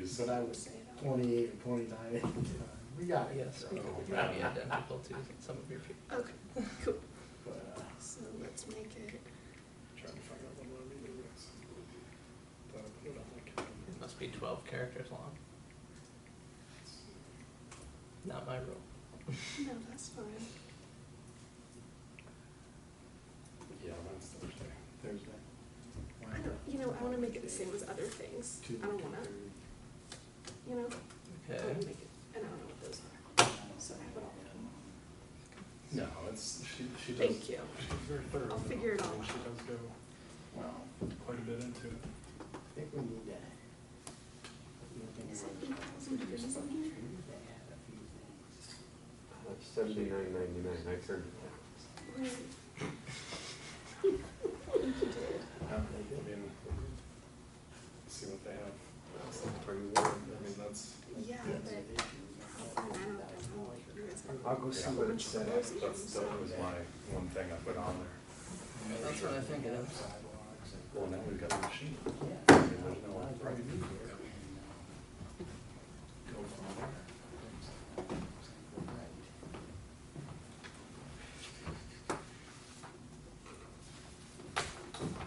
but I was twenty-eight or twenty-nine at the time. We got it, Yes, so. we could probably identical to some of your people. Okay, cool. but, uh, So let's make it, Trying to find out the one meeting was. Thought I put it on my calendar. It must be twelve characters long. Not my rule. no, that's fine. Yeah, mine's Thursday. Thursday. I don't, you know, I wanna make it the same as other things. I don't wanna, you know, I Okay. wanna make it, and I don't know what those are. So I have it all. No, it's, she, she does. Thank you. She's very thorough. I'll figure it I mean, out. She does go Well, quite a bit into it. I think we need to. you know, think about it. There's a bunch of things that had a few things. That's seventy-nine ninety-nine, I turned it down. Right. Yeah, I mean, see what they have. Bring the word. I mean, that's, Yeah, Lots but of issues. I don't know, you guys have I'll go see what it said. that's, that was my one thing I put on there. That's what I think it is. Sidewalks and- Well, now we've got the machine. Yeah. I mean, there's no I'd rather right. be here and, uh, Go from there.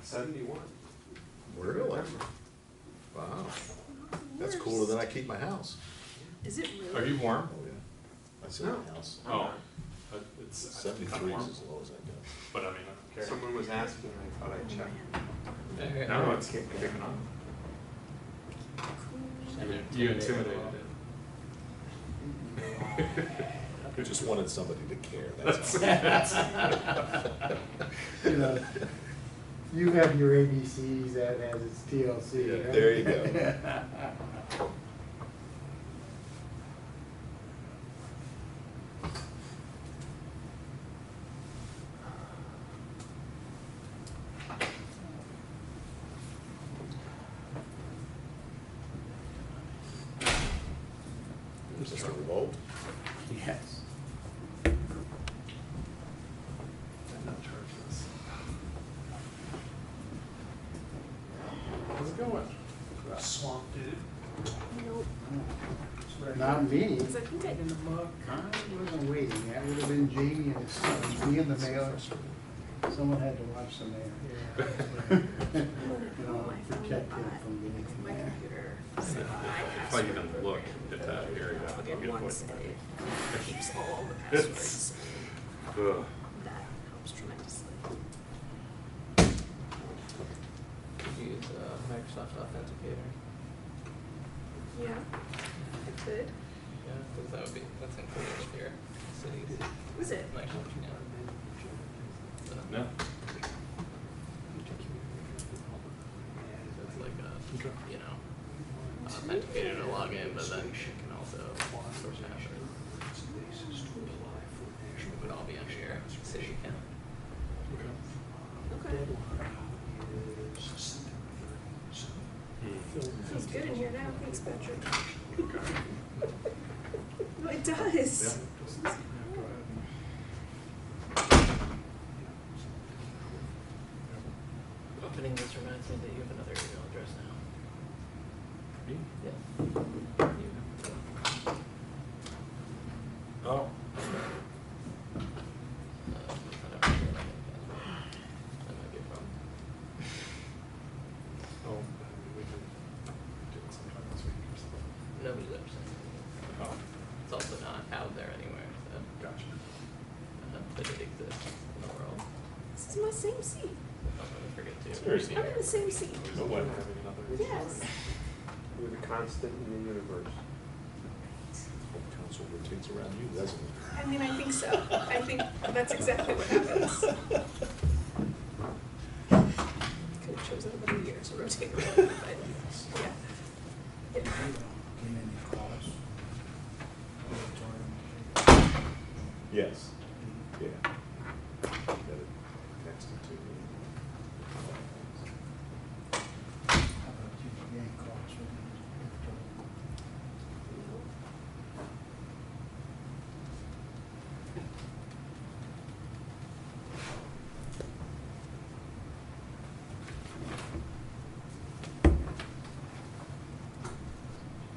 Seventy-one. Really? Wow, That's cooler than I keep my house. Is it really? Are you warm? I said my house. Oh, uh, it's, I'm Seventy-three is warm, as low as I go. but I mean, I don't care. Someone was asking, I Oh, thought I'd check. Alright. No, it's kicking on. You intimidated it. Just wanted somebody to care, that's all. You know, You have your ABCs, that has its TLC, Yeah, right? there you go. Mr. Wolf? Yes. I'm not charged this. How's it going? Swamp dude. Nope, Not me. cause I think I, I wasn't waiting, that would have been Jamie and his son, It was me and the mayor. Someone had to watch the mayor. I'm gonna You pull know, my phone protect him up, from getting my there. computer. so I If I password even look program at that area, that I'll plug in get once what. and it keeps all the It's- passwords. Ugh. That helps tremendously. Could use uh, Microsoft Authenticator. Yeah, it could. Yeah, because that would be, that's included with your cities. Is it? Microsoft, yeah. So, No? It's like a, you know, authenticator to log in, but then you can also source password. It would all be under your city account. Okay, feels good in here now, thanks Patrick. No, it does. Go ahead. Opening this reminds me that you have another email address now. Me? Yeah. Oh. Uh, I don't remember what I have. That might be a problem. Oh, I mean, we can do it sometime this week or something. Nobody's ever sent it. Oh, It's also not out there anywhere, so, gotcha. uh, but it exists in the world. This is my same seat. I'm gonna forget to. It's very rename I'm it. in the same seat. But what? Having another- Yes. You're the constant in the universe. Council rotates around you, doesn't it? I mean, I think so. I think that's exactly what happens. Could have chosen another year to rotate around, but yeah. It- Came in and called us. Yes.